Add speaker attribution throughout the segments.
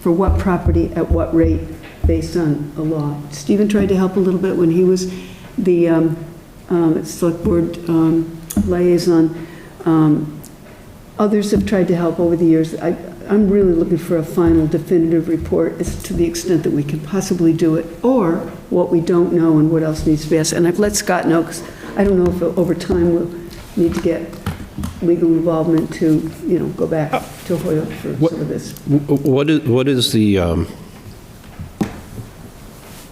Speaker 1: for what property at what rate based on a law. Stephen tried to help a little bit when he was the um, um, Select Board um, liaison. Um, Others have tried to help over the years. I, I'm really looking for a final definitive report as to the extent that we can possibly do it, or what we don't know and what else needs to be asked. And I've let Scott know, because I don't know if over time we'll need to get legal involvement to, you know, go back to Hoyle for
Speaker 2: What-
Speaker 1: some of this.
Speaker 2: What is, what is the, um,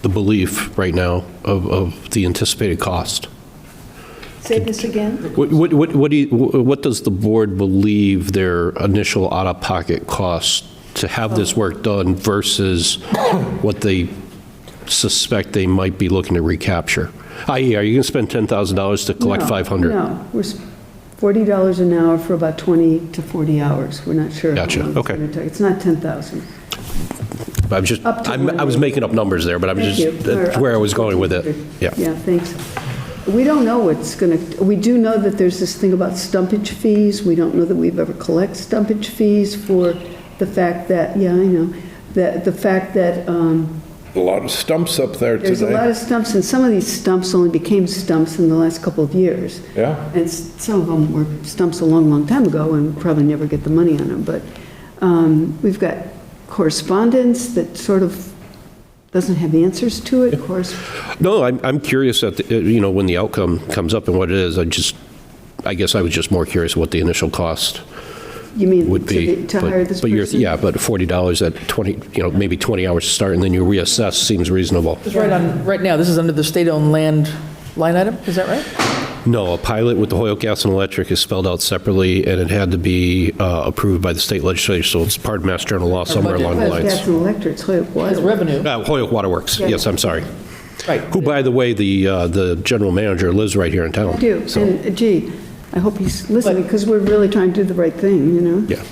Speaker 2: the belief right now of, of the anticipated cost?
Speaker 1: Say this again?
Speaker 2: What, what, what what do you, what does the board believe their initial out-of-pocket cost to have this work done versus what they suspect they might be looking to recapture? I.e., are you going to spend $10,000 to collect
Speaker 1: No,
Speaker 2: 500?
Speaker 1: No, we're s- $40 an hour for about 20 to 40 hours. We're not sure. how
Speaker 2: Gotcha,
Speaker 1: long it's
Speaker 2: okay.
Speaker 1: gonna take. It's not 10,000.
Speaker 2: I'm just,
Speaker 1: Up to
Speaker 2: I'm- I was
Speaker 1: one.
Speaker 2: making up numbers there, but I'm
Speaker 1: Thank you.
Speaker 2: just, that's
Speaker 1: We're
Speaker 2: where I
Speaker 1: up
Speaker 2: was
Speaker 1: to
Speaker 2: going with it.
Speaker 1: 1400.
Speaker 2: Yeah.
Speaker 1: Yeah, thanks. We don't know what's going to, we do know that there's this thing about stumpage fees. We don't know that we've ever collected stumpage fees for the fact that, yeah, I know, that, the fact that, um,
Speaker 3: A lot of stumps up there
Speaker 1: There's a lot
Speaker 3: today.
Speaker 1: of stumps, and some of these stumps only became stumps in the last couple of years.
Speaker 3: Yeah.
Speaker 1: And s- some of them were stumps a long, long time ago, and we'll probably never get the money on them, but um, we've got correspondence that sort of doesn't have answers to it, of course.
Speaker 2: No, I'm, I'm curious that, uh, you know, when the outcome comes up and what it is, I just, I guess I was just more curious what the initial cost
Speaker 1: You mean
Speaker 2: would
Speaker 1: to
Speaker 2: be.
Speaker 1: the- to
Speaker 2: But-
Speaker 1: hire this
Speaker 2: But you're,
Speaker 1: person?
Speaker 2: yeah, but $40 at 20, you know, maybe 20 hours to start and then you reassess seems reasonable.
Speaker 4: Because right on, right now, this is under the state-owned land line item, is that right?
Speaker 2: No, a pilot with the Hoyok Gas and Electric is spelled out separately and it had to be uh, approved by the state legislature, so it's part of Mass General law somewhere
Speaker 4: budget.
Speaker 2: along
Speaker 1: Well,
Speaker 2: the lines.
Speaker 1: That's an electric, it's like,
Speaker 4: As
Speaker 1: what?
Speaker 4: revenue,
Speaker 2: Uh, Hoyok Waterworks,
Speaker 1: Yeah.
Speaker 2: yes, I'm sorry.
Speaker 4: right.
Speaker 2: Who, by the way, the, uh, the general manager lives right here in town.
Speaker 1: I do,
Speaker 2: so-
Speaker 1: and uh, gee, I hope he's listening,
Speaker 4: But-
Speaker 1: because we're really trying to do the right thing, you know?
Speaker 2: Yeah,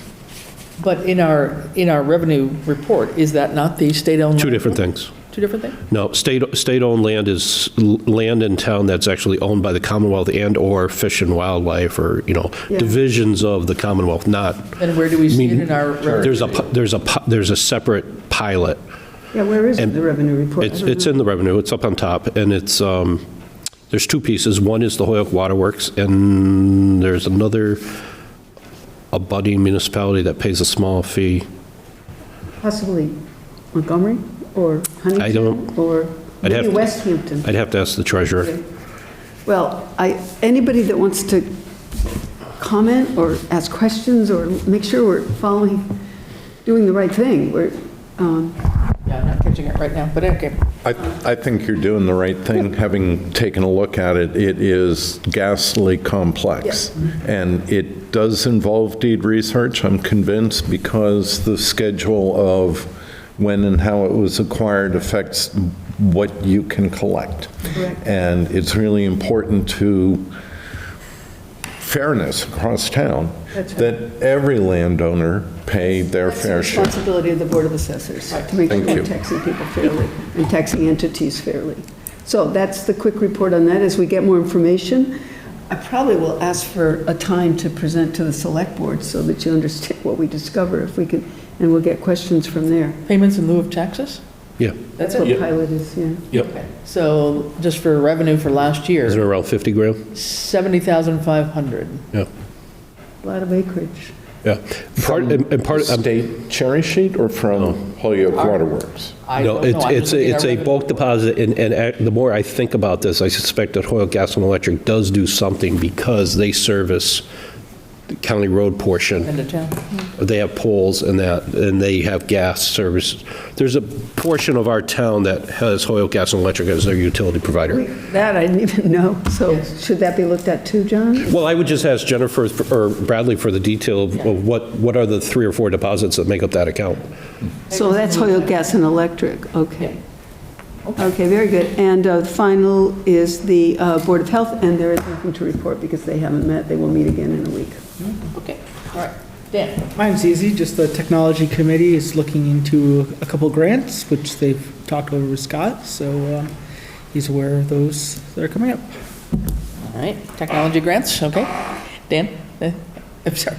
Speaker 4: But in our, in our revenue report, is that not the state-owned?
Speaker 2: two different things.
Speaker 4: Two different things?
Speaker 2: No, state, state-owned land is l- land in town that's actually owned by the Commonwealth and/or Fish and Wildlife, or, you know,
Speaker 1: Yeah.
Speaker 2: divisions of the Commonwealth, not,
Speaker 4: And where do we
Speaker 2: I
Speaker 4: see it
Speaker 2: mean,
Speaker 4: in our?
Speaker 2: there's a, pi- there's a, pi- there's a separate pilot.
Speaker 1: Yeah, where is it,
Speaker 2: And
Speaker 1: the revenue report? I
Speaker 2: It's,
Speaker 1: don't
Speaker 2: it's
Speaker 1: know.
Speaker 2: in the revenue, it's up on top, and it's, um, there's two pieces. One is the Hoyok Waterworks, and there's another abutting municipality that pays a small fee.
Speaker 1: Possibly Montgomery or Huntington
Speaker 2: don't-
Speaker 1: or
Speaker 2: I'd have
Speaker 1: maybe
Speaker 2: to-
Speaker 1: West Hampton.
Speaker 2: I'd have to ask the treasurer.
Speaker 1: Well, I, anybody that wants to comment or ask questions or make sure we're following, doing the right thing, we're, um,
Speaker 4: Yeah, I'm not catching it right now, but okay.
Speaker 3: I, I think you're doing the right thing, having taken a look at it. It is ghastly complex. And it does involve deed research, I'm convinced, because the schedule of when and how it was acquired affects what you can collect.
Speaker 1: Correct.
Speaker 3: And it's really important to fairness across town,
Speaker 1: That's right.
Speaker 3: that every landowner pay their
Speaker 1: that's the
Speaker 3: fair share.
Speaker 1: responsibility of the Board of Assessors, to make sure
Speaker 3: Thank
Speaker 1: we're
Speaker 3: you.
Speaker 1: taxing people fairly and taxing entities fairly. So that's the quick report on that. As we get more information, I probably will ask for a time to present to the Select Board so that you understand what we discover, if we can, and we'll get questions from there.
Speaker 4: Payments in lieu of taxes?
Speaker 2: Yeah,
Speaker 1: That's what
Speaker 2: Yeah.
Speaker 1: pilot is, yeah.
Speaker 2: yep.
Speaker 4: So just for revenue for last
Speaker 2: Isn't
Speaker 4: year,
Speaker 2: it around 50 grand?
Speaker 4: 70,500.
Speaker 2: Yeah,
Speaker 1: A lot of acreage.
Speaker 2: yeah. Part,
Speaker 3: From
Speaker 2: and and part,
Speaker 3: the
Speaker 2: I'm
Speaker 3: State cherry sheet or from Holyoke Waterworks?
Speaker 4: I
Speaker 2: No,
Speaker 4: don't know.
Speaker 2: it's,
Speaker 4: I'm just
Speaker 2: it's,
Speaker 4: looking at
Speaker 2: a- it's
Speaker 4: our
Speaker 2: a
Speaker 4: revenue.
Speaker 2: bulk deposit, and, and ac- the more I think about this, I suspect that Hoyle Gas and Electric does do something because they service the county road portion.
Speaker 4: End of town.
Speaker 2: They have poles and that, and they have gas service. There's a portion of our town that has Hoyle Gas and Electric as their utility provider.
Speaker 1: That I didn't even know, so should that be looked at too, John?
Speaker 2: Well, I would just ask Jennifer or Bradley for the detail of- of what, what are the three or four deposits that make up that account?
Speaker 1: So that's Hoyok Gas and Electric, okay. Okay, very good. And uh, final is the uh, Board of Health, and there is nothing to report because they haven't met. They will meet again in a week.
Speaker 4: Okay, all right. Dan?
Speaker 5: Mine's easy, just the technology committee is looking into a couple grants, which they've talked over with Scott, so um, he's aware of those that are coming up.
Speaker 4: All right, technology grants, okay. Dan? Eh, I'm sorry,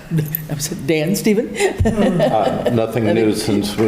Speaker 4: I'm sorry, Dan, Stephen?
Speaker 3: Uh, Nothing new since we